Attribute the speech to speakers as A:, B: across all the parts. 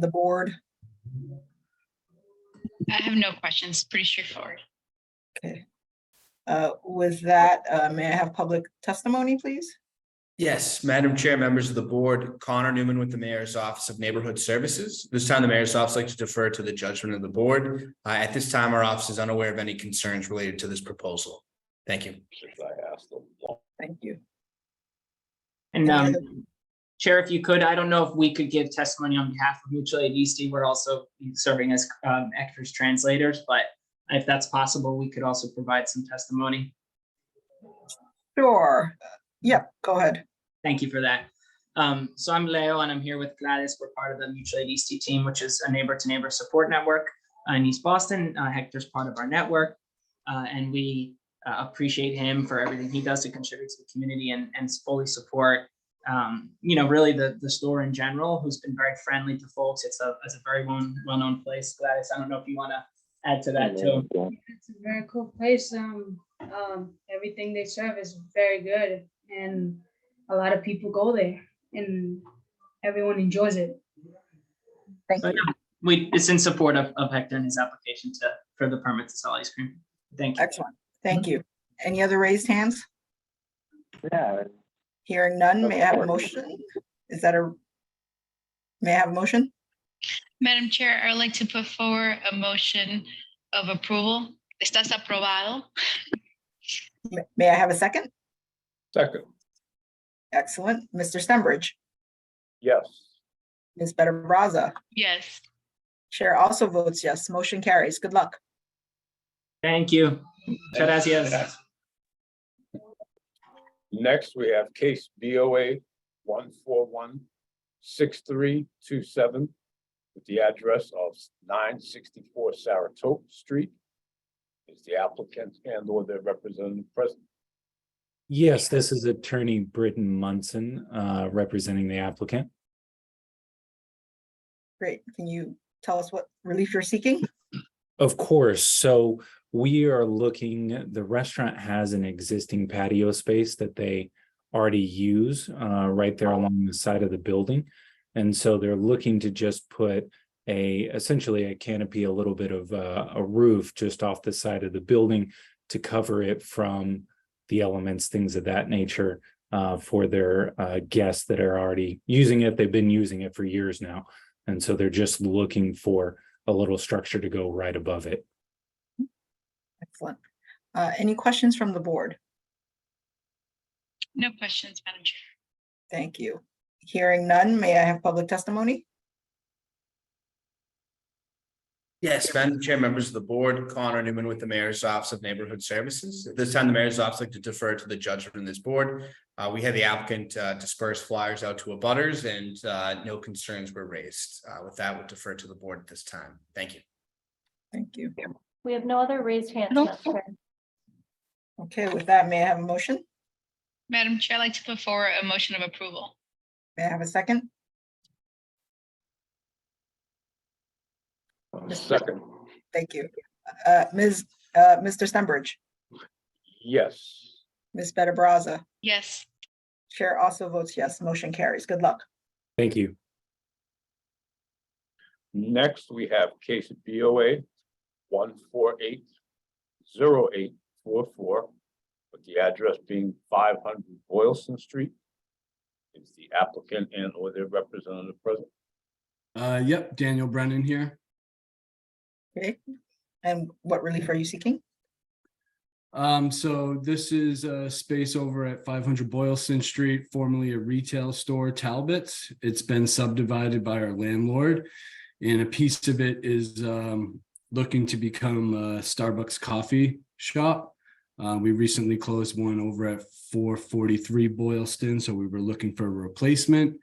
A: the board?
B: I have no questions. Pretty straightforward.
A: Okay. Uh, With that, uh, may I have public testimony, please?
C: Yes, Madam Chair, members of the board, Connor Newman with the Mayor's Office of Neighborhood Services. This time, the Mayor's Office likes to defer to the judgment of the board. Uh, At this time, our office is unaware of any concerns related to this proposal. Thank you.
D: Since I asked them.
A: Thank you.
E: And
A: Any
E: um, Chair, if you could, I don't know if we could give testimony on behalf of mutual aid Eastie. We're also serving as um, actors translators, but if that's possible, we could also provide some testimony.
A: Sure. Yep, go ahead.
E: Thank you for that. Um, so I'm Leo and I'm here with Gladys. We're part of the Mutual Aid Eastie team, which is a neighbor to neighbor support network uh, in East Boston. Uh, Hector's part of our network. uh, and we uh, appreciate him for everything he does to contribute to the community and, and fully support, um, you know, really the, the store in general, who's been very friendly to folks. It's a, it's a very well, well-known place. Gladys, I don't know if you want to add to that too.
F: It's a very cool place. Um, um, everything they serve is very good and a lot of people go there and everyone enjoys it.
A: Thank
E: But
A: you.
E: yeah, we, it's in support of, of Hector and his application to, for the permit to sell ice cream. Thank you.
A: Excellent. Thank you. Any other raised hands?
D: Yeah.
A: Hearing none, may I have a motion? Is that a? May I have a motion?
B: Madam Chair, I would like to put forward a motion of approval. Estás aprobado.
A: M- May I have a second?
D: Second.
A: Excellent. Mr. Stenbridge,
D: Yes.
A: Ms. Better Brazza,
B: Yes.
A: Chair also votes yes. Motion carries. Good luck.
E: Thank you. Gracias.
D: Next, we have case BOA one four one six three two seven with the address of nine sixty-four Saratoga Street. Is the applicant and or their representative present?
G: Yes, this is attorney Britton Munson, uh, representing the applicant.
A: Great. Can you tell us what relief you're seeking?
G: Of course, so we are looking, the restaurant has an existing patio space that they already use, uh, right there along the side of the building. And so they're looking to just put a, essentially a canopy, a little bit of uh, a, a roof just off the side of the building to cover it from the elements, things of that nature, uh, for their, uh, guests that are already using it. They've been using it for years now. And so they're just looking for a little structure to go right above it.
A: Excellent. Uh, Any questions from the board?
B: No questions, Madam Chair.
A: Thank you. Hearing none, may I have public testimony?
C: Yes, Madam Chair, members of the board, Connor Newman with the Mayor's Office of Neighborhood Services. At this time, the Mayor's Office like to defer to the judgment of this board. Uh, We had the applicant uh, disperse flyers out to abutters, and uh, no concerns were raised. Uh, With that, we'll defer to the board at this time. Thank you.
A: Thank you.
H: We have no other raised hands.
B: No.
H: Madam Chair.
A: Okay, with that, may I have a motion?
B: Madam Chair, I'd like to put forward a motion of approval.
A: May I have a second?
D: Second,
A: Thank you. Uh, Ms., uh, Mr. Stenbridge,
D: yes.
A: Ms. Better Brazza,
B: Yes.
A: Chair also votes yes, motion carries. Good luck.
G: Thank you.
D: Next, we have case BOA one four eight zero eight four four, with the address being five hundred Boylston Street. Is the applicant and or their representative present?
I: Uh, yep, Daniel Brennan here.
A: Okay, and what relief are you seeking?
I: Um, so this is a space over at five hundred Boylston Street, formerly a retail store, Talbot's. It's been subdivided by our landlord. And a piece of it is, um, looking to become a Starbucks coffee shop. Uh, we recently closed one over at four forty-three Boylston, so we were looking for a replacement.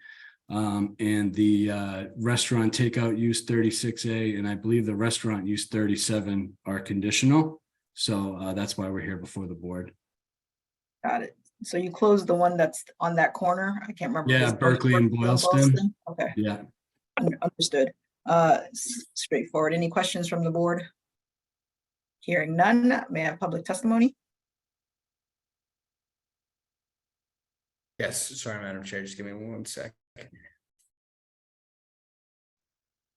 I: Um, and the, uh, restaurant takeout use thirty-six A, and I believe the restaurant use thirty-seven are conditional. So uh, that's why we're here before the board.
A: Got it. So you closed the one that's on that corner? I can't remember.
I: Yeah,
A: Is it
I: Berkeley and Boylston.
A: Okay,
I: Yeah.
A: un- understood. Uh, s- straightforward. Any questions from the board? Hearing none, may I have public testimony?
C: Yes, sorry, Madam Chair, just give me one sec.